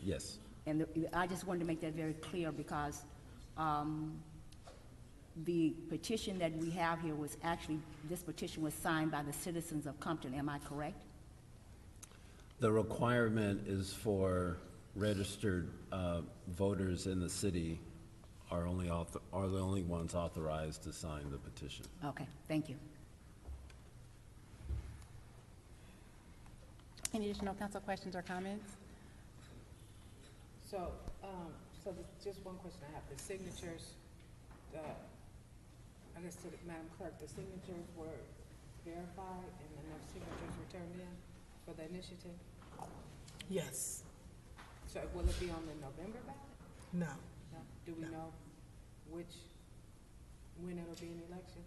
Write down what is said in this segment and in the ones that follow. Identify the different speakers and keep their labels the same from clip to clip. Speaker 1: Yes.
Speaker 2: And the- I just wanted to make that very clear because um, the petition that we have here was actually, this petition was signed by the citizens of Compton, am I correct?
Speaker 1: The requirement is for registered uh, voters in the city are only, auth- are the only ones authorized to sign the petition.
Speaker 2: Okay, thank you.
Speaker 3: Any additional council questions or comments?
Speaker 4: So, um, so the- just one question I have, the signatures, the, I guess to the- Madam Clerk, the signatures were verified and enough signatures were turned in for the initiative?
Speaker 5: Yes,
Speaker 4: So will it be on the November ballot?
Speaker 5: no.
Speaker 4: No? Do we
Speaker 5: No.
Speaker 4: know which, when it'll be an election?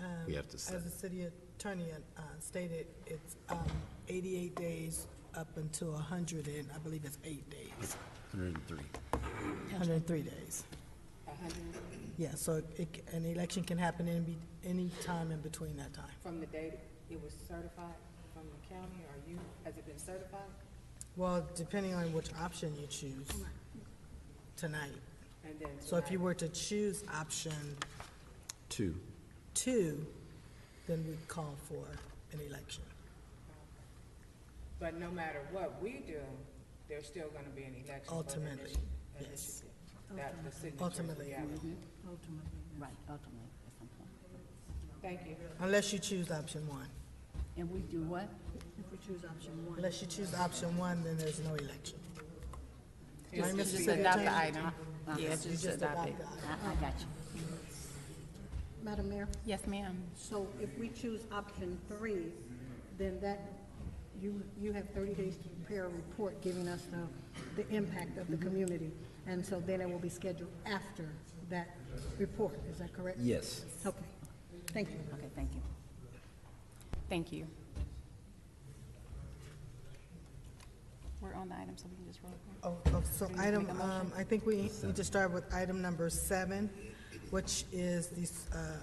Speaker 5: Um,
Speaker 6: We have to set
Speaker 5: As the city attorney uh, stated, it's um, 88 days up until 100 and I believe it's eight days,
Speaker 1: 103.
Speaker 5: 103 days.
Speaker 4: A hundred and-
Speaker 5: Yeah, so it, c- an election can happen any, be- any time in between that time.
Speaker 4: from the date it was certified from the county or you, has it been certified?
Speaker 5: Well, depending on which option you choose tonight.
Speaker 4: And then
Speaker 5: So if you
Speaker 4: tonight-
Speaker 5: were to choose option
Speaker 1: Two.
Speaker 5: two, then we'd call for an election.
Speaker 4: But no matter what we do, there's still gonna be an election. for the
Speaker 5: Ultimately,
Speaker 4: initi-
Speaker 5: yes.
Speaker 4: initiative. That the signatures will
Speaker 5: Ultimately.
Speaker 4: gather.
Speaker 2: Right, ultimately, at some point.
Speaker 4: Thank you.
Speaker 5: Unless you choose option one.
Speaker 2: And we do what?
Speaker 5: Unless you choose option one, then there's no election. Right, Mr.
Speaker 3: Just
Speaker 5: Secretary?
Speaker 3: adopt the item. Yes,
Speaker 5: You
Speaker 3: just adopt it.
Speaker 5: adopt the
Speaker 2: I, Uh, I got you.
Speaker 7: Madam Mayor,
Speaker 3: Yes, ma'am.
Speaker 7: so if we choose option three, then that, you, you have thirty days to prepare a report giving us the, the impact of the community. And so then it will be scheduled after that report, is that correct?
Speaker 1: Yes.
Speaker 7: Okay, thank you.
Speaker 2: Okay, thank you.
Speaker 3: Thank you. We're on the item, so we can just roll call.
Speaker 5: Oh, oh, so item, um, I think we need to start with item number seven, which is the, um,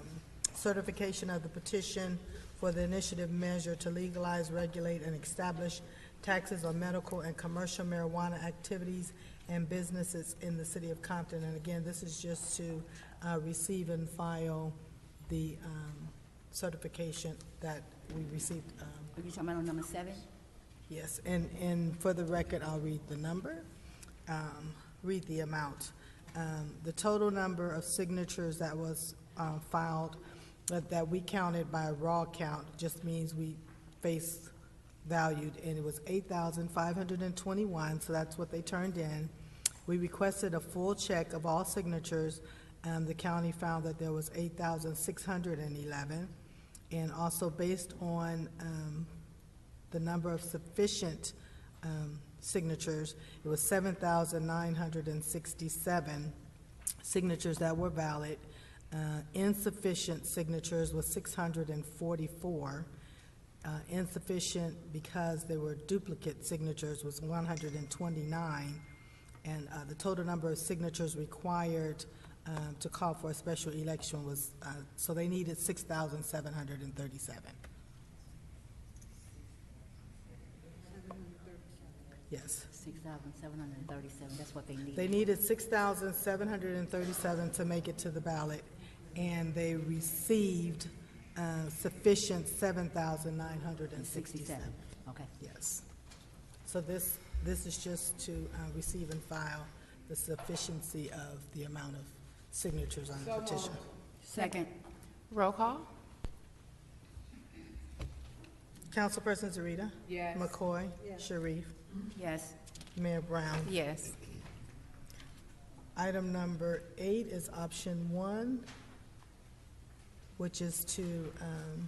Speaker 5: certification of the petition for the initiative measure to legalize, regulate, and establish taxes on medical and commercial marijuana activities and businesses in the city of Compton. And again, this is just to, uh, receive and file the, um, certification that we received, um,
Speaker 2: Are you talking about on number seven?
Speaker 5: Yes, and, and for the record, I'll read the number, um, read the amount. Um, The total number of signatures that was uh, filed, that that we counted by raw count, just means we face valued, and it was 8,521, so that's what they turned in. We requested a full check of all signatures, and the county found that there was 8,611. And also based on um, the number of sufficient um, signatures, it was 7,967 signatures that were valid. Uh, Insufficient signatures was 644. Uh, Insufficient because there were duplicate signatures was 129. And uh, the total number of signatures required um, to call for a special election was, uh, so they needed 6,737. Yes.
Speaker 2: Six thousand seven hundred and thirty-seven, that's what they need.
Speaker 5: They needed six thousand seven hundred and thirty-seven to make it to the ballot, and they received uh, sufficient seven thousand nine hundred and
Speaker 2: Sixty-seven,
Speaker 5: sixty-seven.
Speaker 2: okay.
Speaker 5: Yes. So this, this is just to uh, receive and file the sufficiency of the amount of signatures on the petition.
Speaker 2: Second.
Speaker 3: Roll call?
Speaker 5: Councilperson Zarita.
Speaker 4: Yes.
Speaker 5: McCoy. Sharif.
Speaker 2: Yes.
Speaker 5: Mayor Brown.
Speaker 3: Yes.
Speaker 5: Item number eight is option one, which is to um,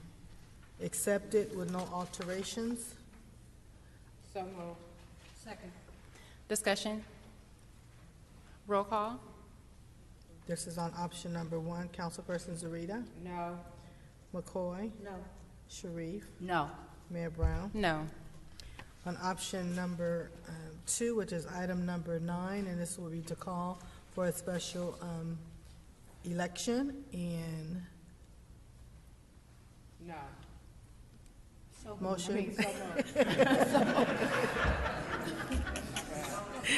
Speaker 5: accept it with no alterations.
Speaker 4: So moved.
Speaker 7: Second.
Speaker 3: Discussion? Roll call?
Speaker 5: This is on option number one. Councilperson Zarita,
Speaker 4: No.
Speaker 5: McCoy,
Speaker 7: No,
Speaker 5: Sharif,
Speaker 2: No.
Speaker 5: Mayor Brown.
Speaker 3: No.
Speaker 5: On option number um, two, which is item number nine, and this will be to call for a special um, election, and
Speaker 4: No.
Speaker 5: Motion.
Speaker 4: So moved.